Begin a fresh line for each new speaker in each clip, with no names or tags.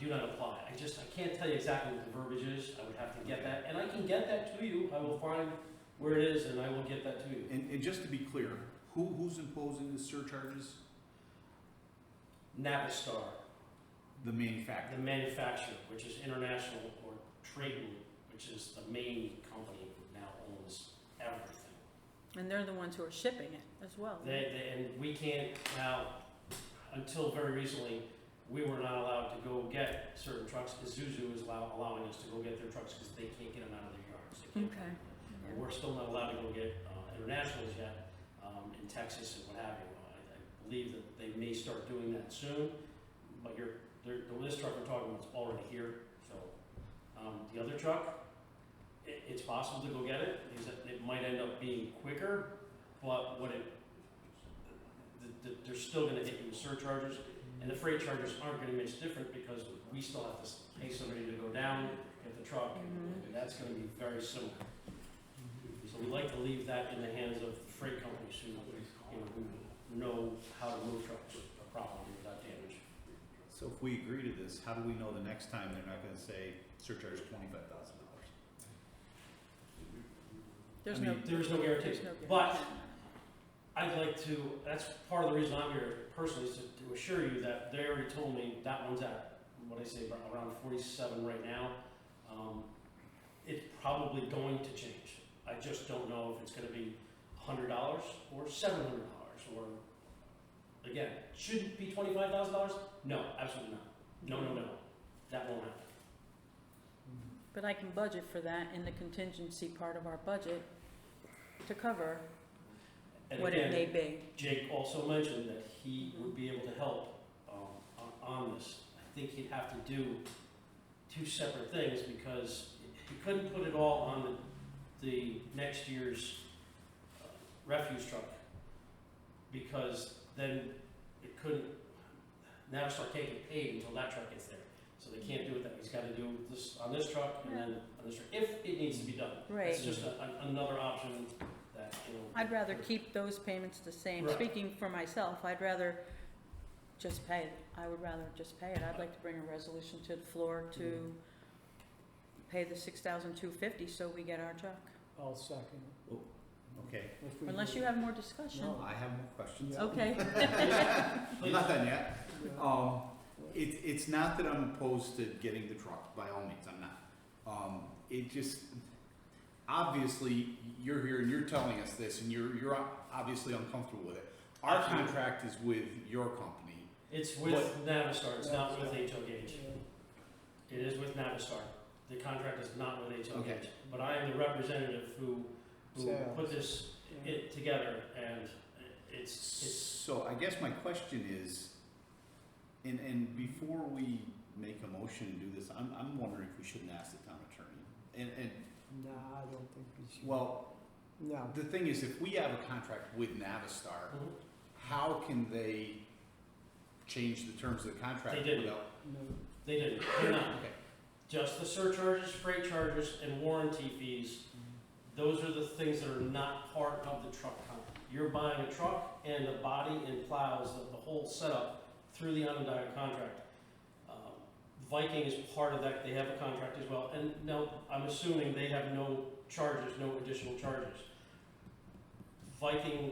do not apply. I just, I can't tell you exactly what the verbiage is, I would have to get that, and I can get that to you, I will find where it is and I will get that to you.
And, and just to be clear, who, who's imposing the surcharges?
Navistar,
The manufacturer.
the manufacturer, which is international or Triton, which is the main company that now owns everything.
And they're the ones who are shipping it as well.
They, they, and we can't now, until very recently, we were not allowed to go get certain trucks. Isuzu is allow, allowing us to go get their trucks because they can't get them out of their yards. They can't-
Okay.
And We're still not allowed to go get, uh, internationals yet, um, in Texas and what have you. I, I believe that they may start doing that soon, but you're, they're, the list truck we're talking about is already here, so. Um, the other truck, it, it's possible to go get it, because it, it might end up being quicker, but what it, the, the, they're still gonna hit you with surcharges, and the freight charges aren't gonna much different, because we still have to s- pay somebody to go down, get the truck,
Mhm.
and that's gonna be very similar. So we like to leave that in the hands of the freight companies who, you know, who know how to move trucks properly without damage.
So if we agree to this, how do we know the next time they're not gonna say surcharge twenty-five thousand dollars?
There's
I
no,
mean,
There is no guarantee.
there's no.
But I'd like to, that's part of the reason I'm here personally, is to- to assure you that they already told me that one's at, what I say, about around forty-seven right now. Um, It's probably going to change. I just don't know if it's gonna be hundred dollars or seven hundred dollars or, again, should it be twenty-five thousand dollars? No, absolutely not. No, no, no. That won't happen.
But I can budget for that in the contingency part of our budget to cover
And
what
again,
it may be.
Jake also mentioned that he would be able to help um, on- on this. I think he'd have to do two separate things because he couldn't put it all on the, the next year's uh, refuse truck because then it couldn't, now it's not getting paid until that truck gets there. So they can't do it that, way. he's gotta do this on this truck and then on this truck, if it needs to be done.
Right.
It's just a- an- another option that, you know.
I'd rather keep those payments the same.
Right.
Speaking for myself, I'd rather just pay it. I would rather just pay it. I'd like to bring a resolution to the floor to
Mm-hmm.
pay the six thousand two fifty so we get our truck.
I'll second
Oh, Okay,
it. If we
Unless
do-
you have more discussion.
No.
I have more questions.
Yeah.
Okay.
I'm not done yet.
Yeah.
Um, it, it's not that I'm opposed to getting the truck, by all means, I'm not. Um, it just, obviously, you're here and you're telling us this and you're, you're obviously uncomfortable with it. Our
Absolutely.
contract is with your company.
It's with Navistar, it's not with HOH.
Yeah.
It is with Navistar. The contract is not with
Okay.
HOH. But I am the representative who, who
Sales.
put this,
Yeah.
it together and it's, it's,
So I guess my question is, and, and before we make a motion and do this, I'm, I'm wondering if we shouldn't ask the town attorney. And, and,
Nah, I don't think we should.
well,
No,
the thing is, if we have a contract with Navistar,
Mhm.
how can they change the terms of the contract?
They didn't.
without-
no.
they didn't, they're not.
Okay.
Just the surcharges, freight charges and warranty fees. Those are the things that are not part of the truck contract. You're buying a truck and the body and plows, the, the whole setup through the Onondaga contract. Um, Viking is part of that, they have a contract as well, and now, I'm assuming they have no charges, no additional charges. Viking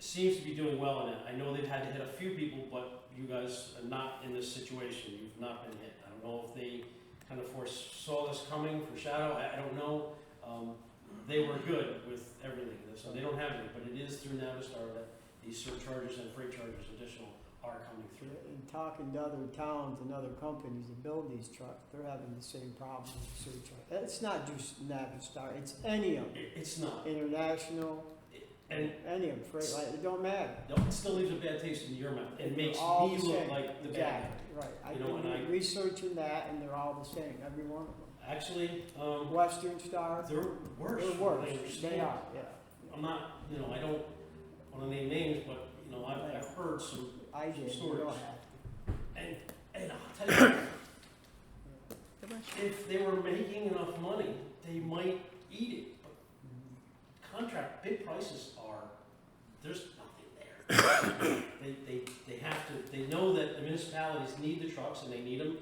seems to be doing well in it, I know they've had to hit a few people, but you guys are not in this situation, you've not been hit. I don't know if they kind of foresaw this coming, foreshadow, I, I don't know, um, they were good with everything, so they don't have it, but it is through Navistar that these surcharges and freight charges additional are coming through.
In talking to other towns and other companies that build these trucks, they're having the same problem with the surcharge. It's not just Navistar, it's any of them,
It, it's not.
international,
And
any of them, freight, like, it don't matter.
no, it still leaves a bad taste in your mouth. It makes
All
me
the
look
same.
like the bad guy.
Exactly, right. I've
You know, and I-
been researching that and they're all the same, every one of them.
Actually, um,
Western Star,
they're worse.
they're
from what I
worse,
understand.
they are, yeah.
I'm not, you know, I don't want to name names, but, you know, I've, I've heard some,
I did, you
Stories.
don't have
and, and I'll tell you,
to.
if they were making enough money, they might eat it, but
Mhm.
contract bid prices are there's nothing there. they, they, they have to they know that the municipalities need the trucks and they need them